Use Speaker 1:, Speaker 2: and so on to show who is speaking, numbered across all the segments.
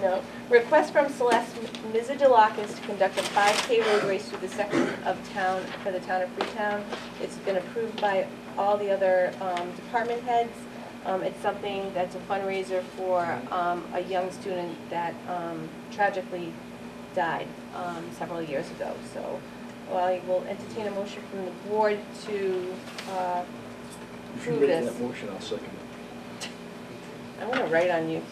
Speaker 1: Note, request from Celeste Mizadilakis to conduct a 5K road race through the section of town, for the town of Freetown. It's been approved by all the other um, department heads. Um, It's something that's a fundraiser for um, a young student that um, tragically died um, several years ago. So I will entertain a motion from the board to, uh,
Speaker 2: If you
Speaker 1: Who
Speaker 2: read
Speaker 1: it is?
Speaker 2: that motion, I'll second it.
Speaker 1: I want to write on you.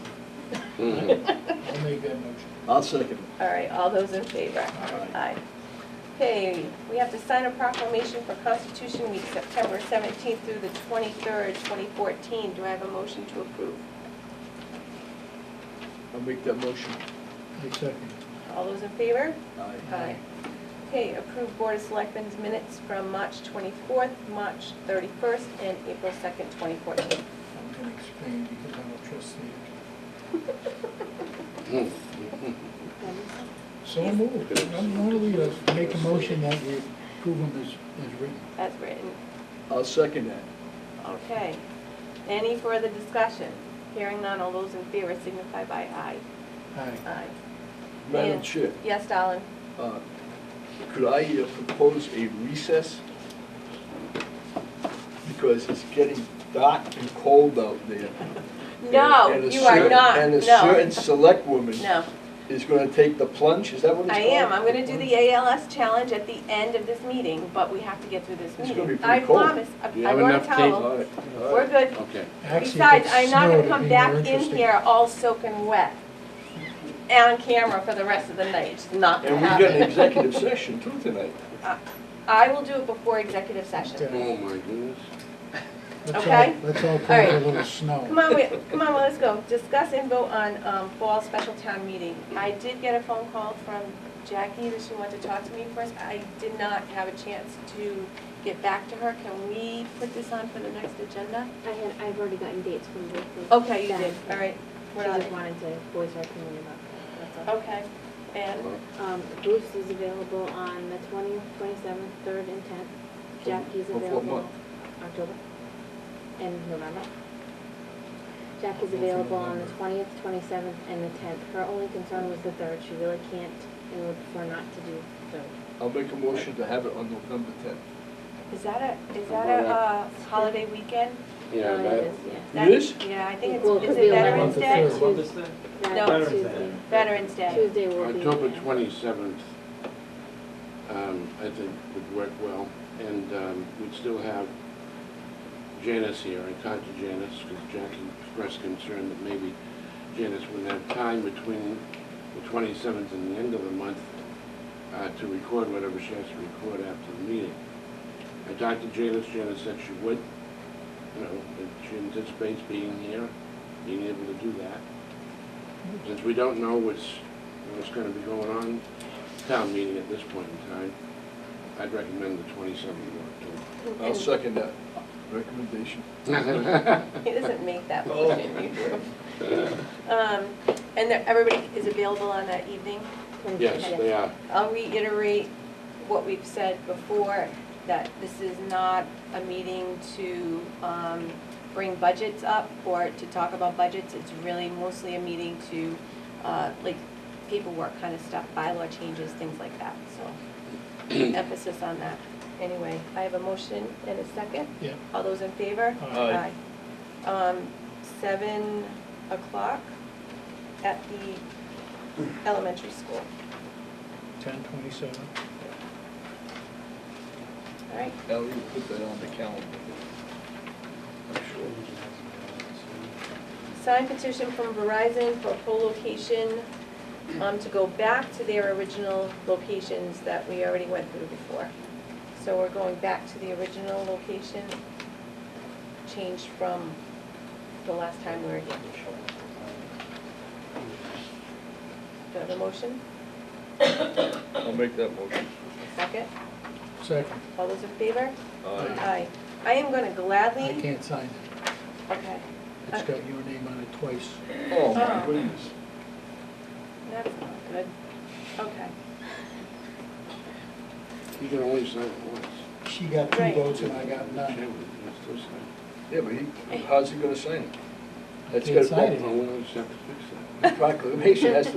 Speaker 3: I'll make that motion.
Speaker 2: I'll second it.
Speaker 1: All right, all those in favor?
Speaker 2: Aye.
Speaker 1: Okay, we have to sign a proclamation for Constitution Week, September 17th through the 23rd, 2014. Do I have a motion to approve?
Speaker 2: I'll make that motion.
Speaker 3: I second.
Speaker 1: All those in favor?
Speaker 2: Aye.
Speaker 1: Okay, approve Board of Selectmen's minutes from March 24th, March 31st, and April 2nd, 2014.
Speaker 3: I'm gonna explain because I'm a trustee. So moved. Why don't we uh, make a motion that we approve them as, as written?
Speaker 1: As written.
Speaker 2: I'll second that.
Speaker 1: Okay. Any further discussion? Hearing none, all those in favor signify by aye.
Speaker 3: Aye.
Speaker 1: Aye.
Speaker 2: Madam
Speaker 1: And-
Speaker 2: Chair,
Speaker 1: Yes, Darlin?
Speaker 2: uh, could I uh, propose a recess? Because it's getting dark and cold out there.
Speaker 1: No,
Speaker 2: And- and a
Speaker 1: you are
Speaker 2: certain-
Speaker 1: not,
Speaker 2: And a
Speaker 1: no.
Speaker 2: certain select woman
Speaker 1: No,
Speaker 2: is going to take the plunge, is that what it's
Speaker 1: I
Speaker 2: called?
Speaker 1: am, I'm gonna do the ALS challenge at the end of this meeting, but we have to get through this
Speaker 2: It's
Speaker 1: meeting.
Speaker 2: gonna be pretty cold.
Speaker 1: I promise, I
Speaker 4: You
Speaker 1: I
Speaker 4: have
Speaker 1: brought a
Speaker 4: enough tape
Speaker 1: towel,
Speaker 2: All right, all
Speaker 1: we're
Speaker 2: right.
Speaker 1: good.
Speaker 4: Okay.
Speaker 3: Actually, if
Speaker 1: Besides,
Speaker 3: it
Speaker 1: I'm not gonna
Speaker 3: snowed,
Speaker 1: come
Speaker 3: it'd be
Speaker 1: back
Speaker 3: more
Speaker 1: in
Speaker 3: interesting.
Speaker 1: here all soaking wet on camera for the rest of the night, it's not gonna
Speaker 2: And we've got an
Speaker 1: happen.
Speaker 2: executive session too tonight.
Speaker 1: I will do it before executive session.
Speaker 3: Yeah.
Speaker 4: Oh, my goodness.
Speaker 3: Let's all-
Speaker 1: okay?
Speaker 3: Let's all pray for a
Speaker 1: Alright.
Speaker 3: little snow.
Speaker 1: Come on, wait, come on, let's go. Discuss and vote on um, fall special town meeting. I did get a phone call from Jackie that she wanted to talk to me first. I did not have a chance to get back to her. Can we put this on for the next agenda?
Speaker 5: I had, I've already gotten dates from both of them.
Speaker 1: Okay, you did, all right.
Speaker 5: She
Speaker 1: We're on
Speaker 5: just
Speaker 1: it.
Speaker 5: wanted to voice her opinion about that,
Speaker 1: Okay, and,
Speaker 5: that's all. Um, Bruce is available on the twentieth, twenty-seventh, third, and tenth. Jackie's
Speaker 2: Of what
Speaker 5: available
Speaker 2: month?
Speaker 5: October and November.
Speaker 3: Hopefully
Speaker 5: Jackie's available on the
Speaker 3: November.
Speaker 5: twentieth, twenty-seventh, and the tenth. Her only concern was the third. She really can't and would prefer not to do third.
Speaker 2: I'll make a motion to have it on November 10th.
Speaker 1: is that a, is that a uh, holiday weekend?
Speaker 4: Yeah,
Speaker 5: Uh,
Speaker 4: that,
Speaker 5: yes, yeah.
Speaker 1: That-
Speaker 2: It is?
Speaker 1: Yeah, I think
Speaker 5: Well, it
Speaker 1: it's,
Speaker 5: could
Speaker 1: is
Speaker 5: be
Speaker 1: it Veterans
Speaker 3: eleventh or
Speaker 1: Day?
Speaker 3: third.
Speaker 6: What is that?
Speaker 5: That
Speaker 1: No.
Speaker 6: Veterans
Speaker 5: Tuesday.
Speaker 6: Day.
Speaker 1: Veterans Day.
Speaker 5: Tuesday will be.
Speaker 4: October
Speaker 5: yeah.
Speaker 4: twenty-seventh, um, I think would work well. And, um, we'd still have Janice here. I talked to Janice because Jackie expressed concern that maybe Janice wouldn't have time between the twenty-seventh and the end of the month, uh, to record whatever she has to record after the meeting. I talked to Janice. Janice said she would, you know, that she anticipates being here, being able to do that. Since we don't know what's, what's gonna be going on, town meeting at this point in time, I'd recommend the twenty-seventh of
Speaker 2: I'll second that recommendation.
Speaker 4: October.
Speaker 1: He doesn't make that
Speaker 2: Oh.
Speaker 1: motion, you do. Um, And there- everybody is available on that evening?
Speaker 4: Yes, they are.
Speaker 1: I'll reiterate what we've said before, that this is not a meeting to um, bring budgets up or to talk about budgets. It's really mostly a meeting to, uh, like, paperwork kind of stuff, bylaw changes, things like that, so emphasis on that. Anyway, I have a motion and a second.
Speaker 3: Yeah.
Speaker 1: All those in favor?
Speaker 2: Aye.
Speaker 1: Aye. Um, Seven o'clock at the elementary school.
Speaker 3: Ten twenty-seven.
Speaker 1: All right,
Speaker 2: Ellie will put that on the calendar. I'm sure.
Speaker 1: Signed petition from Verizon for co-location, um, to go back to their original locations that we already went through before. So we're going back to the original location, changed from the last time we were here. Do I have a motion?
Speaker 2: I'll make that motion.
Speaker 1: Second?
Speaker 3: Second.
Speaker 1: All those in favor?
Speaker 2: Aye.
Speaker 1: Aye. I am gonna
Speaker 3: I
Speaker 1: gladly,
Speaker 3: can't sign it.
Speaker 1: okay,
Speaker 3: It's
Speaker 1: Uh,
Speaker 3: got your name on it twice.
Speaker 2: Oh, my goodness.
Speaker 1: that's not good. Okay,
Speaker 4: You can only sign it once.
Speaker 3: She got two
Speaker 1: Right.
Speaker 3: votes and I got none.
Speaker 4: Chairman, you can still sign.
Speaker 2: Yeah, but he, how's he gonna sign it?
Speaker 3: I
Speaker 2: That's
Speaker 3: They
Speaker 2: got to
Speaker 3: decided.
Speaker 4: Well, we always have to fix that.
Speaker 2: proclamation has to